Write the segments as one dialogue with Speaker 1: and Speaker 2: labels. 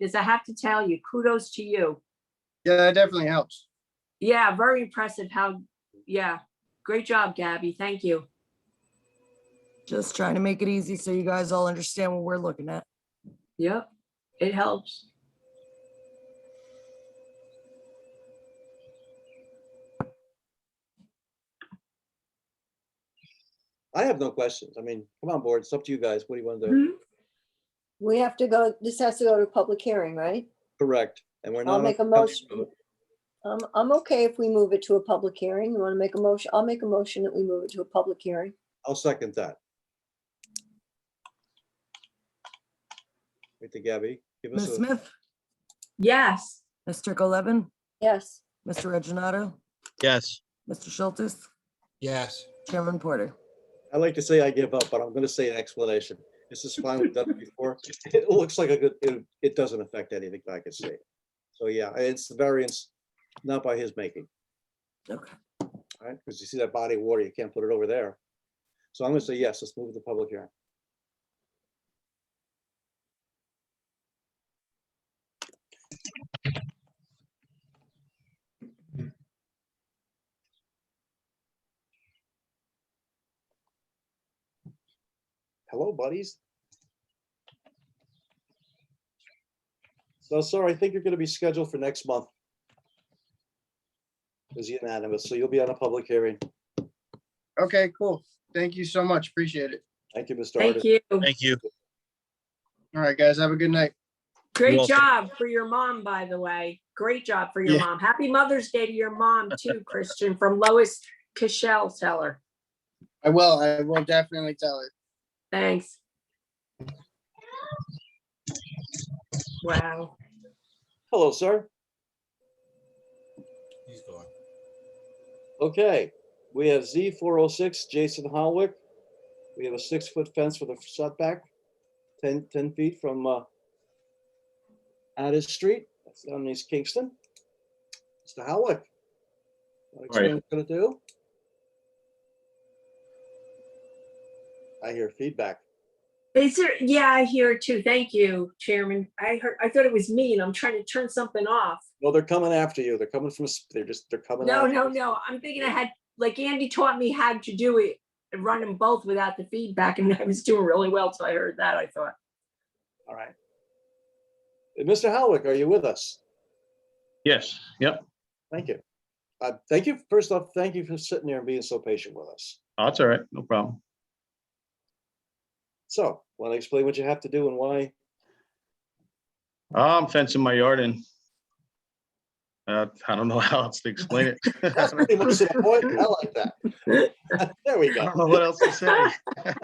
Speaker 1: is I have to tell you, kudos to you.
Speaker 2: Yeah, that definitely helps.
Speaker 1: Yeah, very impressive how, yeah, great job, Gabby. Thank you.
Speaker 3: Just trying to make it easy so you guys all understand what we're looking at.
Speaker 1: Yep, it helps.
Speaker 4: I have no questions. I mean, come on, board. It's up to you guys. What do you want to do?
Speaker 1: Mhm.
Speaker 5: We have to go, this has to go to public hearing, right?
Speaker 4: Correct. And we're not.
Speaker 5: Mm-hmm. I'll
Speaker 4: on
Speaker 5: make a
Speaker 4: company
Speaker 5: motion.
Speaker 4: vote.
Speaker 5: Um, I'm okay if we move it to a public hearing. You want to make a motion? I'll make a motion that we move it to a public hearing.
Speaker 4: I'll second that. Wait, to Gabby, give us
Speaker 3: Ms.
Speaker 4: a,
Speaker 3: Smith,
Speaker 1: Yes,
Speaker 3: Mr. Golevin,
Speaker 5: Yes,
Speaker 3: Mr. Reggino,
Speaker 6: Yes.
Speaker 3: Mr. Schultz,
Speaker 6: Yes.
Speaker 3: Chairman Porter.
Speaker 4: I like to say I give up, but I'm gonna say an explanation. This is fine. We've done it before. It looks like a good, it, it doesn't affect anything I can see. So yeah, it's the variance, not by his making,
Speaker 3: Okay,
Speaker 4: all right? Because you see that body of water, you can't put it over there. So I'm gonna say yes, let's move the public hearing. Hello, buddies. So, sorry, I think you're gonna be scheduled for next month. It was unanimous, so you'll be on a public hearing.
Speaker 2: Okay, cool. Thank you so much. Appreciate it.
Speaker 4: Thank you, Mr.
Speaker 1: thank
Speaker 4: Artis.
Speaker 1: you.
Speaker 6: Thank you.
Speaker 2: All right, guys, have a good night.
Speaker 1: Great
Speaker 6: welcome.
Speaker 1: job for your mom, by the way. Great job for your
Speaker 6: Yeah.
Speaker 1: mom. Happy Mother's Day to your mom too, Christian, from Lois Cashel Teller.
Speaker 2: I will. I will definitely tell it.
Speaker 1: Thanks. Wow.
Speaker 4: Hello, sir.
Speaker 6: He's gone.
Speaker 4: Okay, we have Z four oh six, Jason Howick. We have a six-foot fence with a setback, 10 10 feet from uh, Addis Street, that's down in East Kingston. Mr. Howick. wanna Explain what you're gonna do? I hear feedback.
Speaker 1: Is there, yeah, I hear it too. Thank you, Chairman. I heard, I thought it was me and I'm trying to turn something off.
Speaker 4: No, they're coming after you. They're coming from, s- they're just, they're coming.
Speaker 1: No,
Speaker 4: after
Speaker 1: no,
Speaker 4: us.
Speaker 1: no. I'm thinking I had, like Andy taught me how to do it and run them both without the feedback and I was doing really well. So I heard that, I thought.
Speaker 4: All right. Uh, Mr. Howick, are you with us?
Speaker 6: Yes, yep,
Speaker 4: Thank you. Uh, Thank you, first off, thank you for sitting there and being so patient with us.
Speaker 6: Oh, that's all right, no problem.
Speaker 4: So, want to explain what you have to do and why?
Speaker 6: Ah, I'm fencing my yard in. Uh, I don't know how else to explain it.
Speaker 4: That's pretty much the point. I like that. There we
Speaker 6: I
Speaker 4: go.
Speaker 6: don't know what else to say.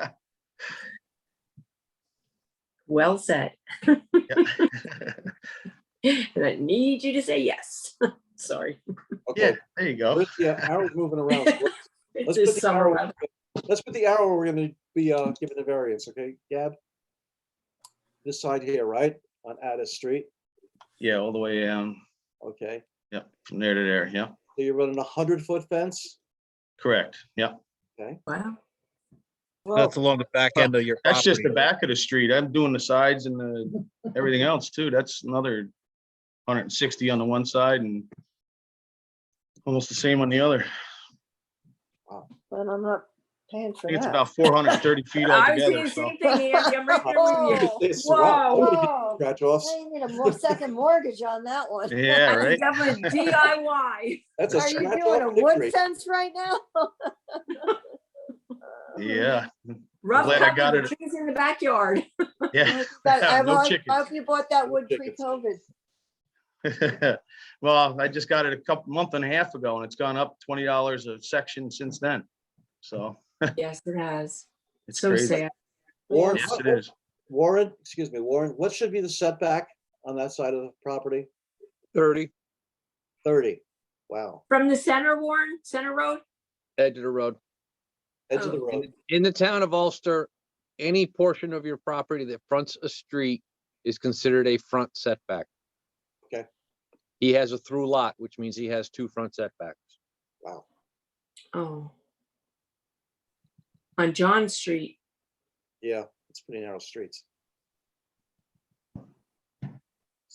Speaker 1: Well said. And I need you to say yes. Sorry.
Speaker 6: Yeah,
Speaker 4: Okay,
Speaker 6: there you go.
Speaker 4: where's the uh, arrow's moving around. so
Speaker 1: It's
Speaker 4: let's- let's put
Speaker 1: this
Speaker 4: the
Speaker 1: summer
Speaker 4: arrow-
Speaker 1: weather.
Speaker 4: Let's put the arrow we're gonna be uh, giving the variance, okay, Gab? This side here, right, on Addis Street,
Speaker 6: Yeah, all the way down,
Speaker 4: okay?
Speaker 6: Yep. from there to there, yeah,
Speaker 4: So you're running a hundred-foot fence?
Speaker 6: correct, yeah.
Speaker 1: Wow.
Speaker 7: That's along the back end of your.
Speaker 6: That's just the
Speaker 7: property.
Speaker 6: back of the street. I'm doing the sides and the, everything else too. That's another hundred and sixty on the one side and almost the same on the other.
Speaker 5: but I'm not paying
Speaker 6: I
Speaker 5: for
Speaker 6: think it's
Speaker 5: that.
Speaker 6: about four hundred and thirty feet
Speaker 1: I was
Speaker 6: altogether,
Speaker 1: doing the
Speaker 6: so.
Speaker 1: same thing, Andy. I'm right there with you.
Speaker 5: Oh,
Speaker 4: This- wow, I'm gonna
Speaker 5: Whoa,
Speaker 4: get Scratch offs.
Speaker 5: I need a more second mortgage on that one.
Speaker 6: Yeah,
Speaker 1: I
Speaker 6: right?
Speaker 1: think I'm a DIY.
Speaker 4: That's a
Speaker 5: Are you
Speaker 4: scratch
Speaker 5: doing a
Speaker 4: off victory.
Speaker 5: wood fence right now?
Speaker 6: Yeah,
Speaker 1: Rough
Speaker 6: glad I
Speaker 1: cut
Speaker 6: got
Speaker 1: with
Speaker 6: it.
Speaker 1: trees in the backyard.
Speaker 6: yeah.
Speaker 5: But I
Speaker 6: No
Speaker 5: hope
Speaker 6: chickens.
Speaker 5: I hope you bought that
Speaker 4: No
Speaker 5: wood
Speaker 4: chickens.
Speaker 5: pre-COVID.
Speaker 6: Well, I just got it a couple, month and a half ago and it's gone up twenty dollars a section since then. So
Speaker 1: Yes, it has.
Speaker 6: it's
Speaker 1: So
Speaker 6: crazy.
Speaker 1: sad.
Speaker 4: Warren,
Speaker 6: Yes,
Speaker 4: what-
Speaker 6: it is.
Speaker 4: Warren, excuse me, Warren, what should be the setback on that side of the property?
Speaker 7: Thirty,
Speaker 4: Thirty. Wow,
Speaker 1: From the center, Warren, Center Road?
Speaker 7: edge of the road.
Speaker 4: edge of the
Speaker 1: Oh.
Speaker 4: road.
Speaker 7: In the town of Ulster, any portion of your property that fronts a street is considered a front setback.
Speaker 4: Okay.
Speaker 7: He has a through lot, which means he has two front setbacks.
Speaker 4: Wow.
Speaker 1: Oh. On John Street.
Speaker 4: Yeah, it's pretty narrow streets.